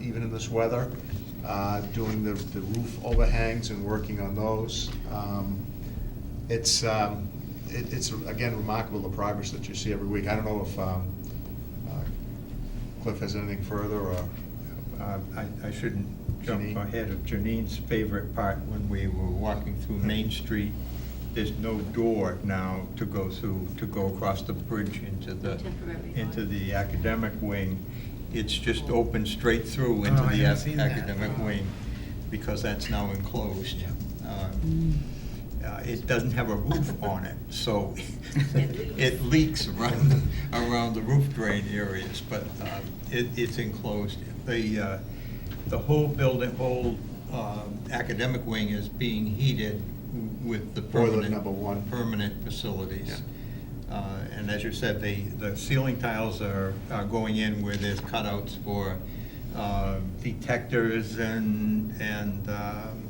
even in this weather, uh, doing the the roof overhangs and working on those. Um, It's, um, it- it's, again, remarkable the progress that you see every week. I don't know if um, uh, Cliff has anything further, or, Um, I I shouldn't jump Janine? ahead of Janine's favorite part, when we were walking through Main Street, there's no door now to go through, to go across the bridge into the, Temporary door. into the academic wing. It's just open straight through into Oh, I the haven't seen ac- that. academic Wow. wing, because that's now enclosed. Um, uh, It doesn't have a roof on it, so it leaks around, the- around the roof drain areas, but um, it, it's enclosed. The, uh, the whole building, whole um, academic wing is being heated with the Boiler permanent. number one. Permanent facilities. Uh, And as you said, the, the ceiling tiles are, are going in where there's cutouts for uh, detectors and, and um,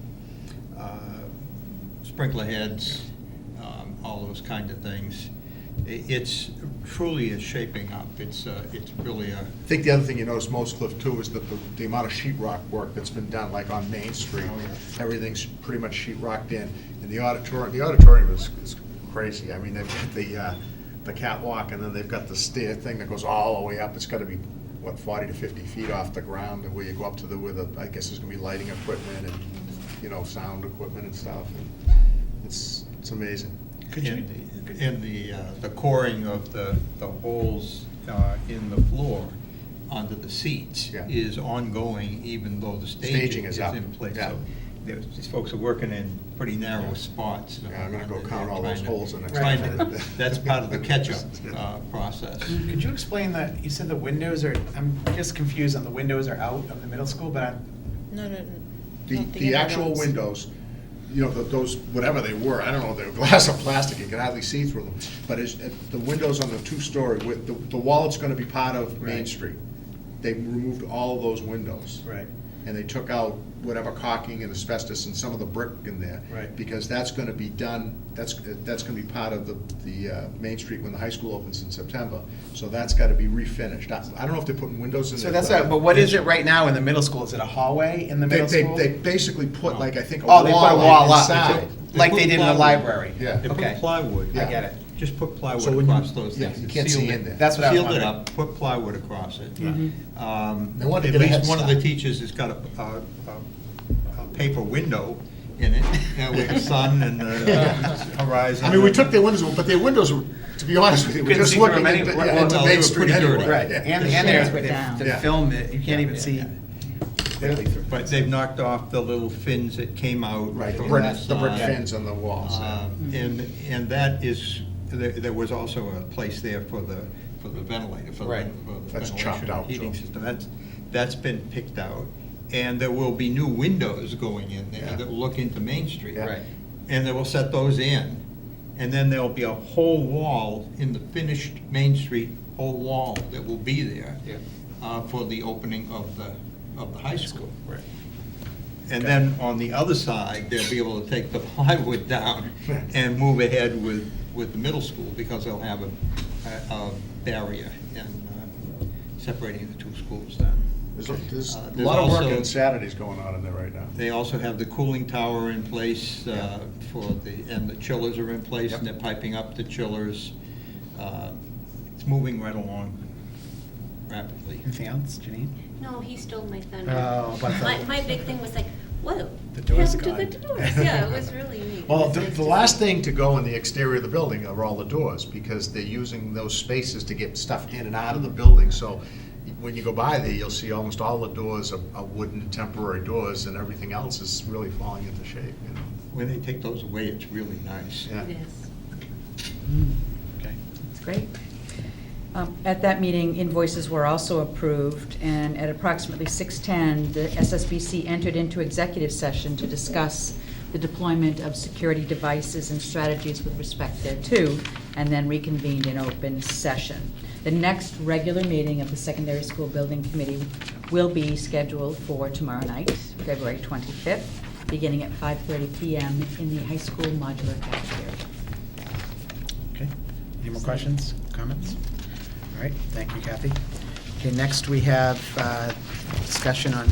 uh, sprinkler heads, um, all those kind of things. I- It's truly is shaping up. It's, uh, it's really a, I think the other thing you notice most, Cliff, too, is that the, the amount of sheet rock work that's been done, like on Main Street. Oh, yeah. Everything's pretty much sheet rocked in, and the auditorium, the auditorium is, is crazy. I mean, they've got the, uh, the catwalk, and then they've got the stair thing that goes all the way up. It's gotta be, what, forty to fifty feet off the ground, and where you go up to the, where the, I guess there's gonna be lighting equipment and, you know, sound equipment and stuff. and It's, it's amazing. Could you- in the, in the, uh, the coring of the, the holes uh, in the floor under the seats Yeah. is ongoing, even though the Staging staging is is up, in place. yeah. So there's- These folks are working in pretty narrow spots. Yeah, I'm gonna go and they're count all those trying to- holes the next trying time. to- That's part of the catch-up uh, process. Could you explain that, you said the windows are, I'm just confused on the windows are out of the middle school, but I'm, No, no, no. The, not the inner actual ones. windows, you know, th- those, whatever they were, I don't know, they were glass or plastic, you could hardly see through them. But it's, it- the windows on the two-story, with, the, the wall that's gonna be part of Main Right. Street, they removed all those windows. right, And they took out whatever caulking and asbestos and some of the brick in there. Right. Because that's gonna be done, that's, that's gonna be part of the, the, uh, Main Street when the high school opens in September. So that's gotta be refinished. I, I don't know if they're putting windows in so there. that's, a- but what is it right now in the middle school? Is it a hallway in the They, middle they, school? they basically put like, I think, a Oh, they put a wall wall up, inside. like they did in the Plywood. library? Yeah. They put Okay, plywood. I get it. Just put So plywood when you- across those yeah, things. you can't Seal see it- in there. That's what I was Seal it wondering. up, put plywood across it. Um, They wanted to At get a head least one of the start. teachers has got a, a- a- a paper window in it, uh, with the sun and the horizon. I mean, we took their windows, but their windows were, to be honest with you, we're Couldn't just see through looking them at, any- the- yeah, well, into no, they Main were Street pretty anyway. dirty. Right, yeah. and, The and there's shades were to- down. to Yeah. film it, you can't even Yeah, see. yeah. Barely through. But they've knocked off the little fins that came out. Right, the from brick, last the brick time. fins on the walls. yeah. Uh, Mm-hmm. Um, And, and that is, there, there was also a place there for the, for the ventilator, for the Right. for the That's chopped ventilation out, heating Joe. system. That's, that's been picked out. And there will be new windows going in Yeah. there that will look into Main Street. Yeah. Right. And they will set those in. And then there'll be a whole wall in the finished Main Street, whole wall that will be there Yeah. uh, for the opening of the, of the high school. Right. And then on the other side, they'll be able to take the plywood down and move ahead with, with the middle school because they'll have a, a- a barrier in uh, separating the two schools then. There's, a- there's Uh, a there's lot of work also- on Saturdays going on in there right now. They also have the cooling tower in place uh, for the, and the chillers are in place and they're piping up the chillers. Uh, It's moving right along rapidly. Anything else, Janine? No, he stole my thunder. Oh, but the- My, my big thing was like, whoa. The door's they have to do gone. the doors. Yeah, it was really neat. It Well, was the, nice the to last see. thing to go in the exterior of the building are all the doors, because they're using those spaces to get stuff in and out of the building, so when you go by there, you'll see almost all the doors are, are wooden temporary doors, and everything else is really falling into shape, you know? When they take those away, it's really nice. Yeah. Yes. Okay. That's great. Um, At that meeting, invoices were also approved, and at approximately 6:10, the SSBC entered into executive session to discuss the deployment of security devices and strategies with respect thereto, and then reconvened in open session. The next regular meeting of the Secondary School Building Committee will be scheduled for tomorrow night, February 25th, beginning at 5:30 PM in the high school modular cafeteria. Okay, any more questions, comments? All right, thank you, Kathy. Okay, next we have uh, discussion on